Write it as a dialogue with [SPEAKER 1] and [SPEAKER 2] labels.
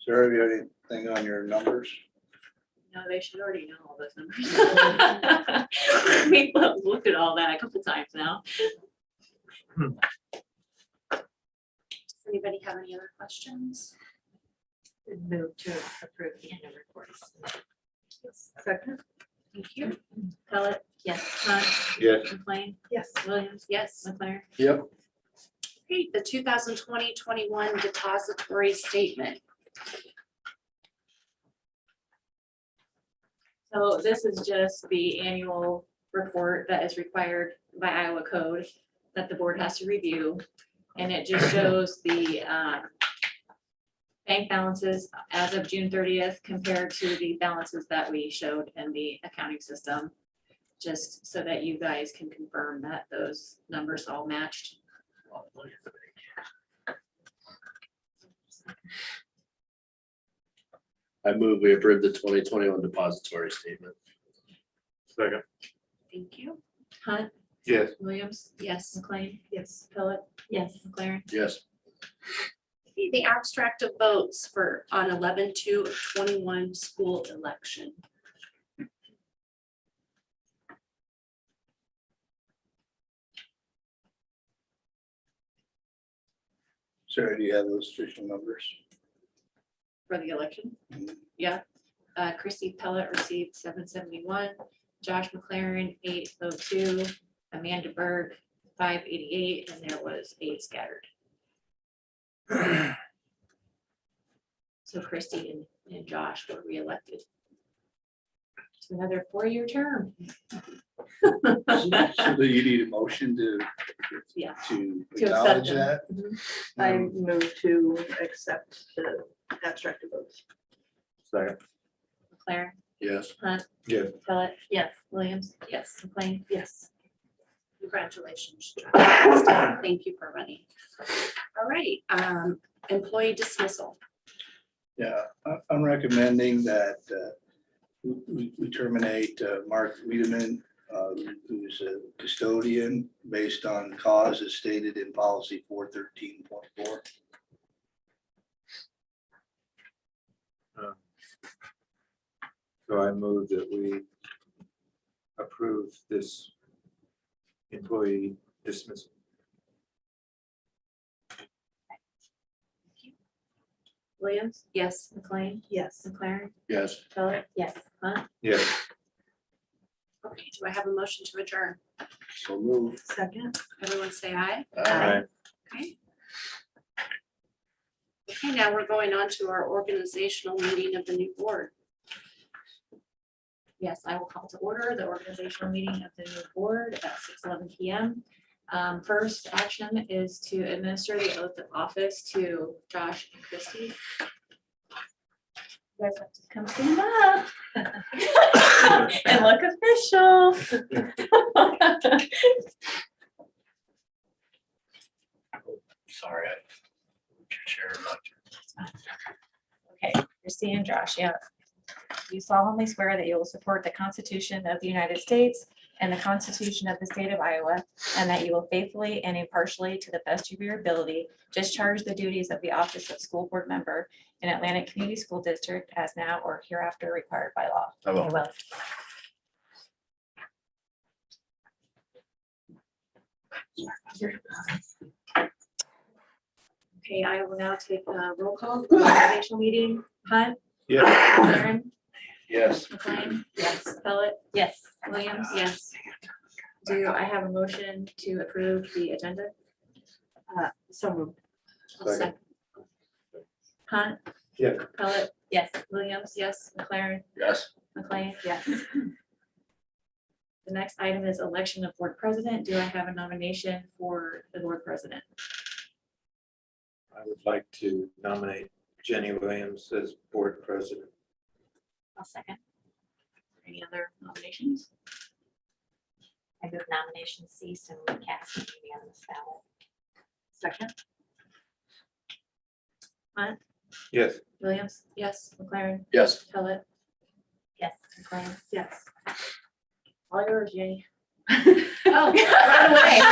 [SPEAKER 1] Sarah, have you had anything on your numbers?
[SPEAKER 2] No, they should already know all those numbers. We've looked at all that a couple times now.
[SPEAKER 3] Hmm.
[SPEAKER 2] Does anybody have any other questions? Move to approve the end of reports.
[SPEAKER 4] Second?
[SPEAKER 2] Thank you. Pellet? Yes. Hunt?
[SPEAKER 1] Yes.
[SPEAKER 2] McLean?
[SPEAKER 4] Yes.
[SPEAKER 2] Williams? Yes. McLaren?
[SPEAKER 1] Yep.
[SPEAKER 2] Great, the 2020-21 depository statement. So this is just the annual report that is required by Iowa code that the board has to review. And it just shows the um, bank balances as of June thirtieth compared to the balances that we showed in the accounting system. Just so that you guys can confirm that those numbers all matched.
[SPEAKER 5] I move we approve the twenty twenty-one depository statement.
[SPEAKER 3] Second.
[SPEAKER 2] Thank you. Hunt?
[SPEAKER 3] Yes.
[SPEAKER 2] Williams? Yes. McLean?
[SPEAKER 4] Yes.
[SPEAKER 2] Philip? Yes. McLaren?
[SPEAKER 5] Yes,
[SPEAKER 2] The abstract of votes for on eleven to twenty-one school election.
[SPEAKER 1] Sarah, do you have those official numbers?
[SPEAKER 2] For the election? Yeah. Uh, Chrissy Pellet received seven seventy-one, Josh McLaren eight oh two, Amanda Berg five eighty-eight, and there was eight scattered. So Christy and, and Josh were reelected. To another four-year term.
[SPEAKER 1] So do you need a motion to?
[SPEAKER 2] Yeah.
[SPEAKER 1] To
[SPEAKER 2] accept
[SPEAKER 1] acknowledge
[SPEAKER 2] them.
[SPEAKER 1] that? Um,
[SPEAKER 2] Mhm.
[SPEAKER 4] I move to accept the abstract of votes.
[SPEAKER 3] Second.
[SPEAKER 2] McLaren,
[SPEAKER 5] yes,
[SPEAKER 2] Hunt.
[SPEAKER 3] Yes.
[SPEAKER 2] Pellet. Yes. Williams. Yes. McLean.
[SPEAKER 4] Yes.
[SPEAKER 2] Congratulations, John. Thank you for running. All right, um, employee dismissal.
[SPEAKER 1] Yeah, I- I'm recommending that uh, we- we we terminate uh, Mark Wiedemann, uh, who's a custodian, based on cause as stated in policy four thirteen point four.
[SPEAKER 3] Um, So I move that we approve this employee dismissal.
[SPEAKER 2] Williams? Yes. McLean?
[SPEAKER 4] Yes.
[SPEAKER 2] McLaren?
[SPEAKER 5] yes,
[SPEAKER 2] Philip? Yes. Hunt?
[SPEAKER 3] Yes.
[SPEAKER 2] Okay, do I have a motion to adjourn?
[SPEAKER 1] So move.
[SPEAKER 4] Second?
[SPEAKER 2] Everyone say aye.
[SPEAKER 5] Aye.
[SPEAKER 2] Okay. Okay, now we're going on to our organizational meeting of the new board. Yes, I will call to order the organizational meeting of the new board at six eleven P M. Um, first action is to administer the oath of office to Josh and Christie. You guys have to come stand up. And look official.
[SPEAKER 5] sorry. I moved your chair about
[SPEAKER 6] Okay, Christie and Josh, yeah. You solemnly swear that you will support the Constitution of the United States and the Constitution of the State of Iowa, and that you will faithfully and impartially, to the best of your ability, discharge the duties of the office of school board member in Atlantic Community School District as now or hereafter required by law.
[SPEAKER 5] I will.
[SPEAKER 2] Okay, I will now take a roll call for the organizational meeting. Hunt?
[SPEAKER 3] Yes.
[SPEAKER 2] Aaron?
[SPEAKER 5] Yes,
[SPEAKER 2] McLean? Yes. Pellet?
[SPEAKER 6] Yes.
[SPEAKER 2] Williams? Yes. Do I have a motion to approve the agenda?
[SPEAKER 4] So moved.
[SPEAKER 2] I'll
[SPEAKER 3] Second.
[SPEAKER 2] sec- Hunt?
[SPEAKER 3] Yeah.
[SPEAKER 2] Pellet?
[SPEAKER 6] Yes.
[SPEAKER 2] Williams? Yes. McLaren?
[SPEAKER 5] yes,
[SPEAKER 2] McLean?
[SPEAKER 4] Yes.
[SPEAKER 2] The next item is election of board president. Do I have a nomination for the board president?
[SPEAKER 3] I would like to nominate Jenny Williams as board president.
[SPEAKER 2] I'll second. Any other nominations?
[SPEAKER 6] I move nomination cease and we cast it unanimous ballot.
[SPEAKER 4] Second?
[SPEAKER 3] Yes.
[SPEAKER 2] Williams? Yes. McLaren?
[SPEAKER 5] yes.
[SPEAKER 2] Pellet?
[SPEAKER 6] Yes.
[SPEAKER 2] McLean?
[SPEAKER 4] Yes.
[SPEAKER 2] All yours, Jenny.
[SPEAKER 4] Oh,
[SPEAKER 2] right away.